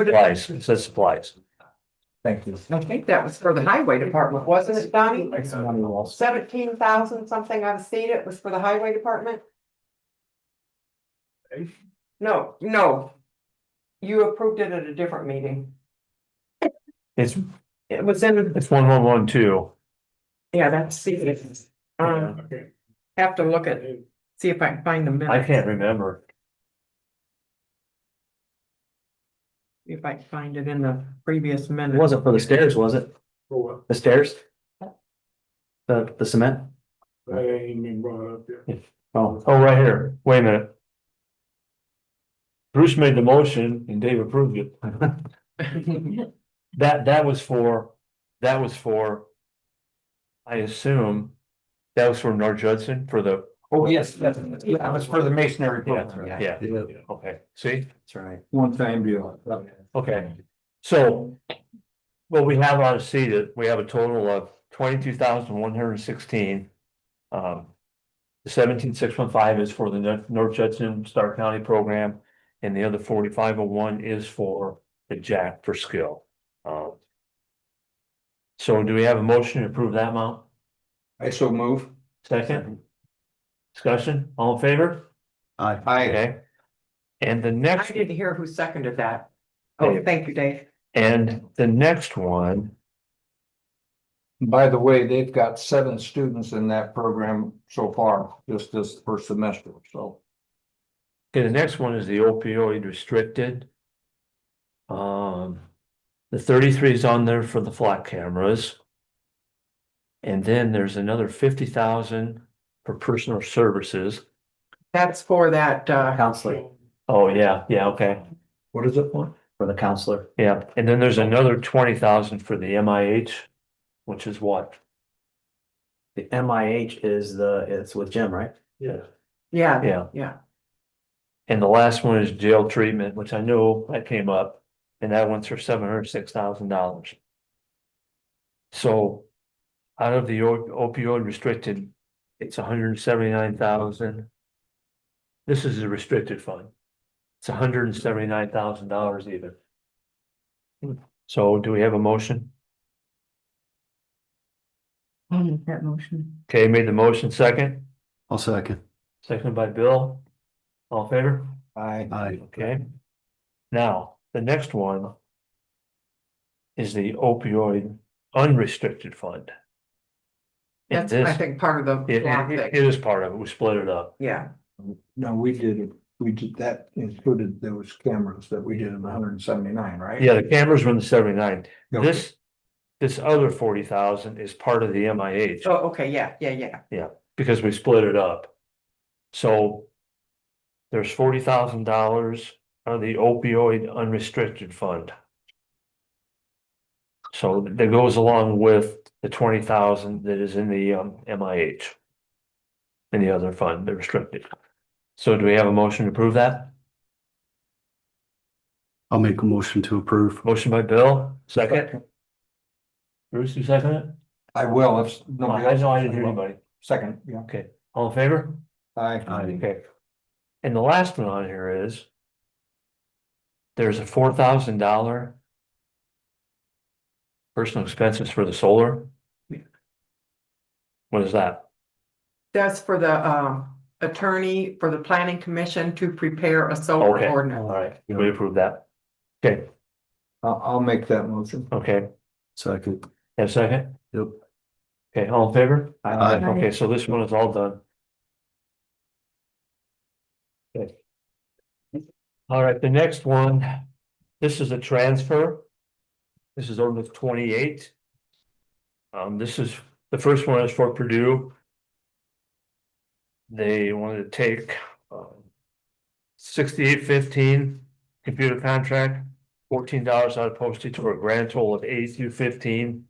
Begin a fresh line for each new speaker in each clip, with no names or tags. Supplies, it says supplies.
Thank you.
I think that was for the highway department, wasn't it, Donnie? Seventeen thousand something, I've seen it, was for the highway department? No, no. You approved it at a different meeting.
It's,
It was in,
it's one one one two.
yeah, that's, see, it's, um, have to look at, see if I can find the
I
minutes,
can't remember.
see if I can find it in the previous
It
minute.
wasn't for the stairs, was it?
For
The stairs? The, the cement?
what? That ain't been brought up yet.
Oh, oh, right here. Wait a minute. Bruce made the motion and Dave approved it. That, that was for, that was for. I assume. That was for North Judson for the,
Oh, yes, that's, that was for the masonry. program.
Yeah, yeah. okay, see?
That's right. One time deal.
Okay. So. Well, we have on see that we have a total of twenty-two thousand one hundred and sixteen. Um. Seventeen six one five is for the Nor- North Judson Star County program. And the other forty-five oh one is for the Jack for skill. Um, So do we have a motion to approve that amount?
I so move.
Second? Discussion, all in favor?
Aye.
Okay. And the
I
next.
didn't hear who seconded that. Oh,
Dave.
thank you, Dave.
And the next one
By the way, they've got seven students in that program so far, just this first semester, so.
Okay, the next one is the opioid restricted. Um, the thirty-three is on there for the flat cameras. And then there's another fifty thousand for personal services.
That's for that, uh,
Counselor,
Oh, yeah, yeah, okay,
What is it for?
for the counselor,
yeah, and then there's another twenty thousand for the MIH, which is what?
the MIH is the, it's with Jim, right?
Yeah.
yeah,
Yeah,
yeah.
and the last one is jail treatment, which I know that came up, and that one's for seven hundred six thousand dollars. So out of the o- opioid restricted, it's $179,000. This is the restricted fund. It's hundred and seventy-nine thousand dollars even. So do we have a motion?
I'll make that motion.
Okay, made the motion second,
I'll second.
seconded by Bill. All in favor?
Aye.
Aye.
Okay. Now, the next one. Is the opioid unrestricted fund. And
That's, I
this,
think, part of the.
it-
law
it-
that-
it is part of it, we split it up.
Yeah,
No, we did, it. we did, that included those cameras that we did in hundred and seventy-nine, right?
Yeah, the cameras were in the seventy-nine,
Okay.
this, this other forty thousand is part of the MIH.
oh, okay, yeah, yeah, yeah.
because we split it up. So there's forty thousand dollars on the opioid unrestricted fund. So that goes along with the twenty thousand that is in the um MIH. And the other fund, the restricted. So do we have a motion to approve that?
I'll make a motion to approve.
Motion by Bill, second. Bruce, you second it?
I will, if nobody
I
else.
know I didn't hear anybody.
Second, yeah.
Okay, all in favor?
Aye.
Aye.
Okay. Um, And the last one on here is. There's a four thousand dollar. Personal expenses for the solar. What is that?
That's for the um attorney for the planning commission to prepare a solar
Okay.
ordinance.
right. We approve that. Okay,
I'll, I'll make that motion.
okay,
Second.
have a second?
Yep.
Okay, all in favor?
Aye.
Okay, so this one is all done. Okay. All right, the next one, this is a transfer. This is ordinance twenty-eight. Um, this is, the first one is for Purdue. They wanted to take um, sixty-eight fifteen computer contract, fourteen dollars out of postage for a grand total of eighty-two fifteen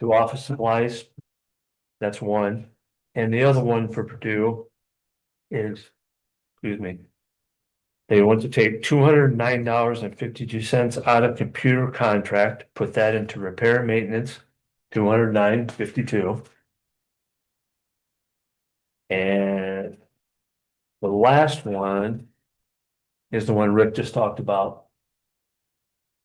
to office supplies. That's one. And the other one for Purdue is, excuse me. They want to take two hundred and nine dollars and fifty-two cents out of computer contract, put that into repair and maintenance, two hundred nine fifty-two. And the last one is the one Rick just talked about.